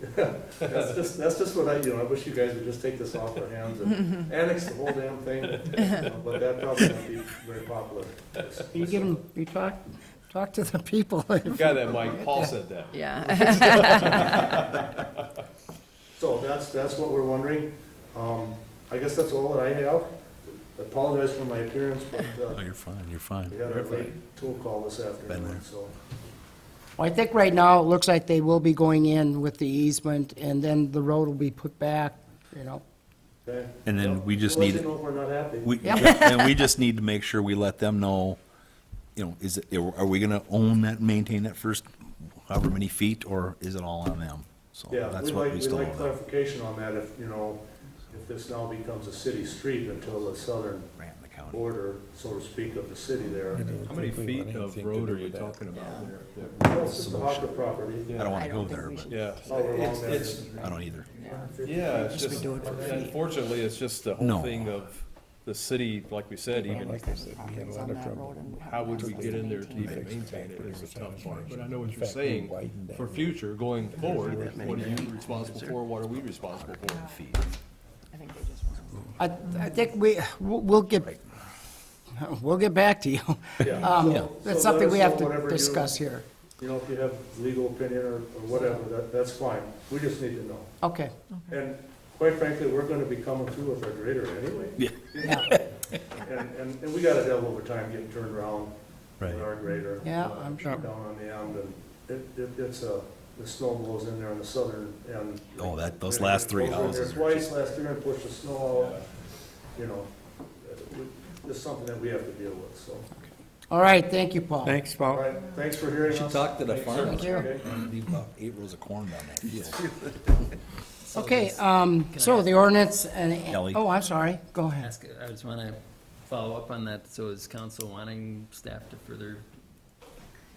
That's just, that's just what I, you know, I wish you guys would just take this off our hands and annex the whole damn thing, you know, but that probably won't be very popular. You give them, you talk, talk to the people. You got that, Mike, Paul said that. Yeah. So that's, that's what we're wondering. Um, I guess that's all that I have. Apologize for my appearance, but, Oh, uh, you're fine, you're fine. we had a late tool call this afternoon, there. so. Well, I think right now, it looks like they will be going in with the easement, and then the road will be put back, you know. okay. And then we just We'll need- Let you know if we're not happy. We, and we just need to make sure we let them know, you know, is, it- are we gonna own that, maintain that first however many feet, or is it all on them? So Yeah, that's we'd what like, we we'd still like owe clarification on that if, you know, if this now becomes a city street until the southern them, the county. border, so to speak, of the city there. How many feet of road are you talking about there? Well, It's just the Hawker property. I don't I wanna go don't think there, we but should. Yeah, All along it's, that it's, is- I don't either. yeah, it's just, unfortunately, it's just the No. whole thing of the city, like we said, even, how would we get in there to even maintain it is a tough part. But I know what you're saying, for future, going forward, what are you responsible for, what are we responsible for? I, I think we, we'll we'll get, we'll get back to you. Yeah. Um, So- so let That's something us we know have to whatever you- discuss here. You know, if you have legal opinion or, or whatever, that, that's fine. We just need to know. Okay. And quite frankly, we're gonna be coming through with our grader anyway. Yeah. And, and, and we got a hell of a time getting turned around with Right. our grader. Yeah, uh, I'm sure. Down on the end, and it, it, it's a, the snow blows in there on the southern end. Oh, that- those last three It goes in there houses are Twice last year and pushed the snow out, you know, uh, it's something that we have to deal with, so. All right, thank you, Paul. Thanks, All Paul. right, thanks for hearing us. should talk to the Thanks, farmers. Thank you. okay? Leave about eight rows of corn down that field. Okay, um, so the ordinance Ellie. and, oh, I'm sorry, go ahead. Ask, I just want to follow up on that. So is council wanting staff to further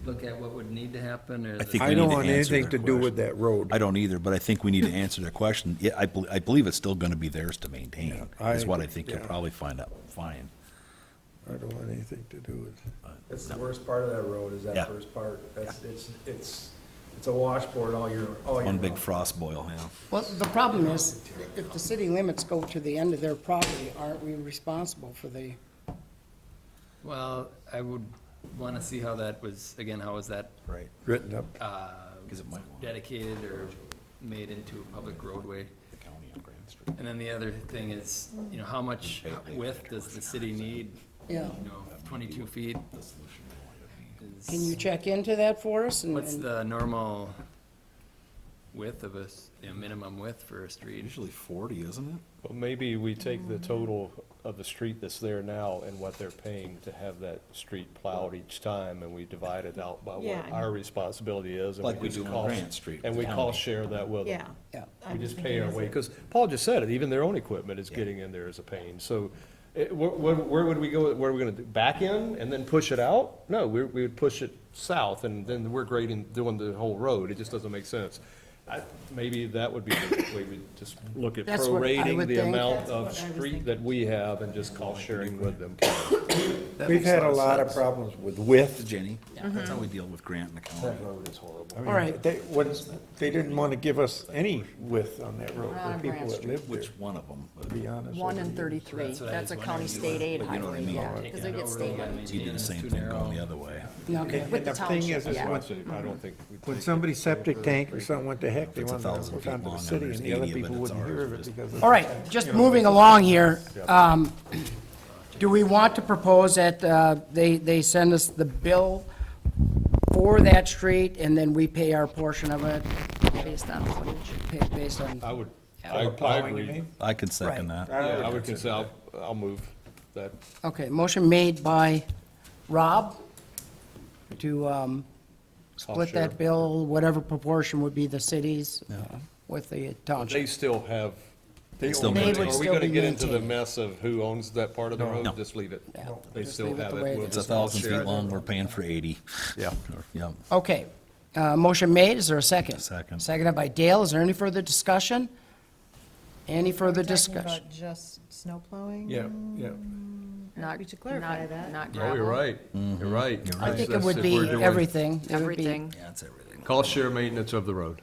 look at what would need to happen or? I the- think we I need don't to want answer anything their to do with question. that road. I don't either, but I think we need to answer their question. Yeah, I, bel- I believe it's still gonna be theirs to maintain, Yeah, is I- what I think you'll yeah. probably find out, fine. I don't want anything to do with it. That's the worst part of that road, is Yeah. that first part. That's, it's, it's, it's a washboard all year, all year. One big round. frost boil, yeah. Well, the problem is, if the city limits go to the end of their property, aren't we responsible for the, Well, I would want to see how that was, again, how was that Right. Written up, uh, Because it might want the dedicated or made into a public roadway? county on Grand Street. And then the other thing is, you know, how much width does the city need? Yeah. You know, twenty-two feet can you is, check into that for us? and- what's and- the normal width of a, s- you know, minimum width for a street? Usually forty, isn't it? Well, maybe we take the total of the street that's there now and what they're paying to have that street plowed each time, and we divide it out by Yeah, what and- our responsibility is. and Like we just do on cost- Grant Street, And the we county. cost share that with them. Yeah. Yeah. We I'm just pay thinking our as way, a- because Paul just said it, even their own equipment is Yeah. getting in there as a pain. So it, where, where- where would we go, where are we gonna, do back in and then push it out? No, we, we would push it south and then we're grading, doing the whole road. It just doesn't make sense. I, maybe that would be the way we just look at That's what I prorating would the think. amount That's what I of was street thinking. that we have and just cost sharing with them. we've had a lot of problems with width. Jenny, that's how we deal with Grant and the county. road is horrible. I mean, All right. They, when, they didn't want to give us any width on that road, Not the on people Grand that Street. lived there, Which one of them? to be honest. One with and you. thirty-three, That's what I that's a was county wondering. state aid But you know what I highway, mean. yeah, because they get state money. You did the same thing going the other way. Okay. And With the the thing township, is, is yeah. when- I don't think. we take when it somebody septic over. tank or something went to heck, they It's a wanted to thousand put feet it onto long, the and city, there's and the other 80 of it, people it's wouldn't hear ours, of we it just- because of. All right, just moving along here. um, Do we want to propose that uh, they, they send us the bill for that street and then we pay our portion of it based on footage. pa- based on, I would, I, Over I plowing, you agree. mean? I can second that. Yeah, I would consider, I'll, I'll move that. okay, motion made by Rob to um, split share. that bill, whatever proportion would be the city's uh, with the They township. still have. They still They maintain would it. Are we still gonna be get into the maintained. mess of who owns that part of the No. road? Just leave it. Yeah. They Just still leave it have the way it. it We'll is. It's a just thousand share feet it. long, we're paying for eighty. Yeah. Yep. Okay, uh, motion made, is there a second? Second. Seconded by Dale, is there any further discussion? Any further Talking about discussion? Just snow plowing? Yeah, yeah. Not- We should clarify not- that. Not Oh, gravel. you're right. Mm-hmm. You're right. I That's- think it that's would if we're be doing everything. It would be- Everything. Yeah, it's everything. Cost share maintenance of the road.